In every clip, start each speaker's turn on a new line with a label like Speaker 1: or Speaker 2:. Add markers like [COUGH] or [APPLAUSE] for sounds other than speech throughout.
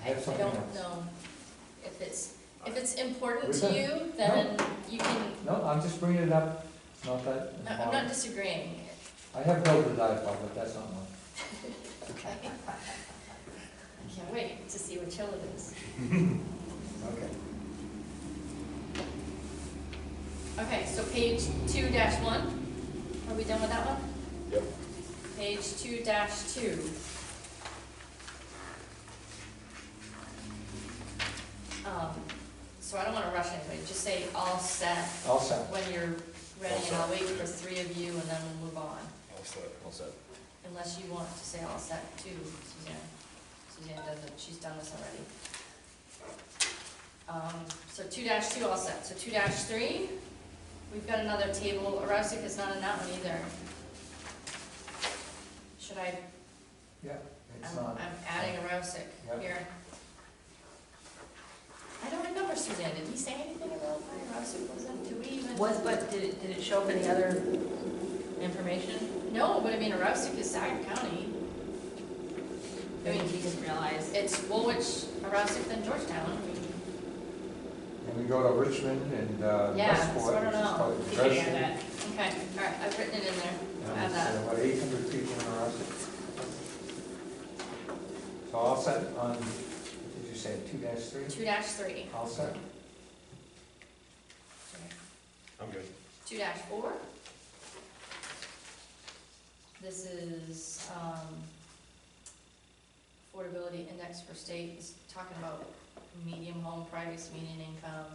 Speaker 1: have
Speaker 2: I
Speaker 1: something
Speaker 2: don't
Speaker 1: else.
Speaker 2: know if it's, if it's important
Speaker 1: We're
Speaker 2: to
Speaker 1: done.
Speaker 2: you, then you can,
Speaker 1: No, I'm just bringing it up, not that. it's
Speaker 2: I- I'm
Speaker 1: mine.
Speaker 2: not disagreeing.
Speaker 1: I have no desire, Bob, but that's not mine.
Speaker 2: Okay. I can't wait to see what Sheldon is.
Speaker 1: Okay.
Speaker 2: Okay, so page two dash one, are we done with that one?
Speaker 3: Yep.
Speaker 2: Page two dash two. Um, so I don't wanna rush anybody, just say all set
Speaker 1: All set.
Speaker 2: when you're ready,
Speaker 3: All
Speaker 2: and I'll
Speaker 3: set.
Speaker 2: wait for three of you, and then we'll move on.
Speaker 3: All set. All set.
Speaker 2: Unless you want to say all set too, Suzanne. Suzanne doesn't, she's done this already. Um, so two dash two all set, so two dash three, we've got another table, Arousic is not in that one either. Should I,
Speaker 1: Yeah, it's
Speaker 2: I'm,
Speaker 1: not.
Speaker 2: I'm adding Arousic
Speaker 1: Yep.
Speaker 2: here. I don't remember Suzanne, did he say anything about why Arousic was in, do we even?
Speaker 4: Was, but did it, did it show up any other information?
Speaker 2: No, but I mean, Arousic is Sag County. I
Speaker 4: Maybe
Speaker 2: mean,
Speaker 4: he didn't realize.
Speaker 2: It's Woolwich, Aroostook, then Georgetown. I mean,
Speaker 1: And we go to Richmond and uh,
Speaker 2: Yeah, so I
Speaker 1: Westport,
Speaker 2: don't
Speaker 1: which is
Speaker 2: know.
Speaker 1: probably
Speaker 4: Did you
Speaker 1: the
Speaker 4: hear
Speaker 1: best.
Speaker 4: that?
Speaker 2: Okay, all right, I've written it in there. I'll add
Speaker 1: And it's, uh,
Speaker 2: that.
Speaker 1: About eight hundred people in our office. So all set on, did you say two dash three?
Speaker 2: Two dash three.
Speaker 1: All set?
Speaker 3: I'm good.
Speaker 2: Two dash four. This is, um, affordability index for state, it's talking about medium home price, median income.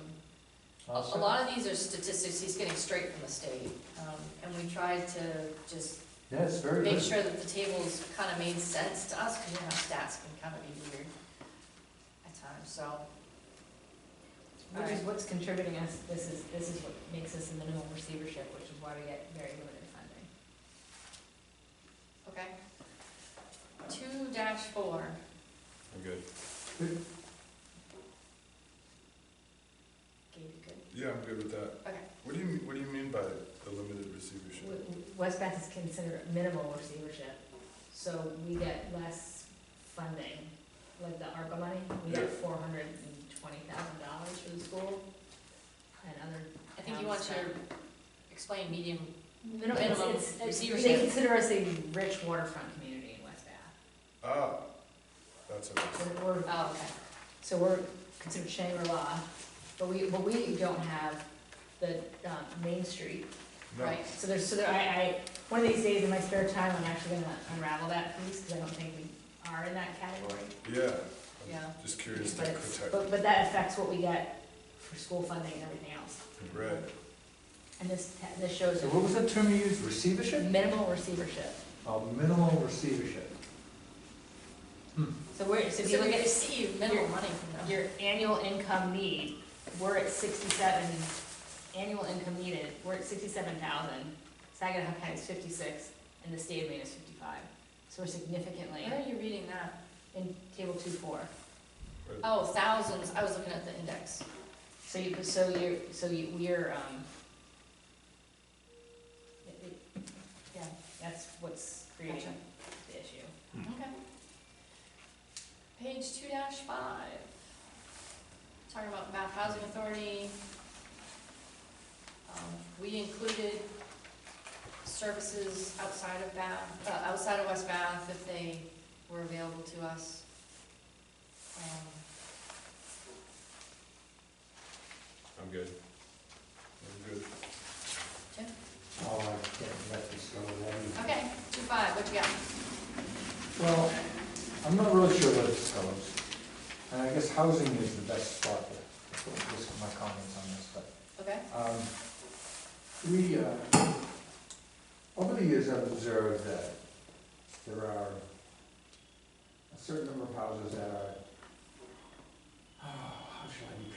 Speaker 2: A,
Speaker 1: All
Speaker 2: a
Speaker 1: set?
Speaker 2: lot of these are statistics he's getting straight from the state, um, and we tried to just
Speaker 1: Yeah, it's very
Speaker 2: make
Speaker 1: good.
Speaker 2: sure that the tables kind of made sense to us, because you know, stats can kind of be weird at times, so.
Speaker 4: Which is what's contributing us, this is, this is what makes us in the new receivership, which is why we get very limited funding.
Speaker 2: Okay. Two dash four,
Speaker 3: I'm good.
Speaker 2: Gabe, you good?
Speaker 3: Yeah, I'm good with that.
Speaker 2: Okay.
Speaker 3: What do you, what do you mean by the limited receivership?
Speaker 4: W- w- West Bath is considered a minimal receivership, so we get less funding, like the ARPA money, we get four hundred and twenty thousand dollars for the school and other
Speaker 2: I think you want to
Speaker 4: Sounds
Speaker 2: explain medium,
Speaker 4: Minimum,
Speaker 2: Minimum
Speaker 4: it's- it's-
Speaker 2: receivership.
Speaker 4: They consider us a rich waterfront community in West Bath.
Speaker 3: Ah, that's it.
Speaker 4: We're- we're-
Speaker 2: oh, okay.
Speaker 4: so we're considered Shangri-La, but we, but we don't have the, um, Main Street.
Speaker 3: No.
Speaker 2: Right.
Speaker 4: So there's, so there, I, I, one of these days in my spare time, I'm actually gonna unravel that piece, cause I don't think we are in that category.
Speaker 3: Yeah.
Speaker 2: Yeah.
Speaker 3: I'm just curious to
Speaker 4: But it's,
Speaker 3: protect.
Speaker 4: but, but that affects what we get for school funding and everything else.
Speaker 3: Right.
Speaker 4: And this, ta- this shows
Speaker 1: So what was the term you used,
Speaker 4: a
Speaker 1: receivership?
Speaker 4: minimal receivership.
Speaker 1: Oh, minimal receivership.
Speaker 4: So we're, so
Speaker 2: So
Speaker 4: if you
Speaker 2: we
Speaker 4: look at
Speaker 2: receive minimal money from them.
Speaker 4: your annual income need, we're at sixty-seven, annual income needed, we're at sixty-seven thousand. Saginaw County is fifty-six, and the state of Maine is fifty-five. So we're significantly
Speaker 2: Where are you reading that?
Speaker 4: in table two four.
Speaker 2: Oh, thousands, I was looking at the index.
Speaker 4: So you, so you're, so you, we're, um, it- it- yeah, that's what's creating
Speaker 2: Gotcha.
Speaker 4: the issue.
Speaker 2: Okay. Page two dash five, talking about Bath Housing Authority. Um, We included services outside of Bath, uh, outside of West Bath if they were available to us. Um,
Speaker 3: I'm good. I'm good.
Speaker 1: Oh, I can't let this go away.
Speaker 2: Okay, two five, what you got?
Speaker 1: Well, I'm not really sure where this goes. And I guess housing is the best spot there. That's what- Just my comments on this, but
Speaker 2: Okay,
Speaker 1: Um, We, uh, over the years, I've observed that there are a certain number of houses that are, [SIGHS] oh, how shall I be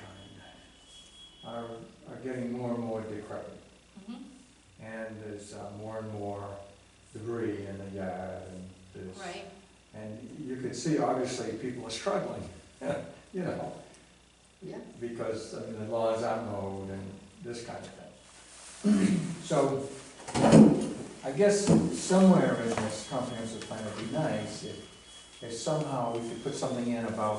Speaker 1: kind? Are, are getting more and more decrepit.
Speaker 2: mhm,
Speaker 1: And there's uh, more and more debris in the yard and there's.
Speaker 2: right,
Speaker 1: And you can see, obviously, people are struggling, [LAUGHS] you know?
Speaker 2: Yeah.
Speaker 1: Because, I mean, the laws are mowed and this kind of thing. [CLEARS THROAT] So, I guess somewhere in this comprehensive plan, it'd be nice if, if somehow we could put something in about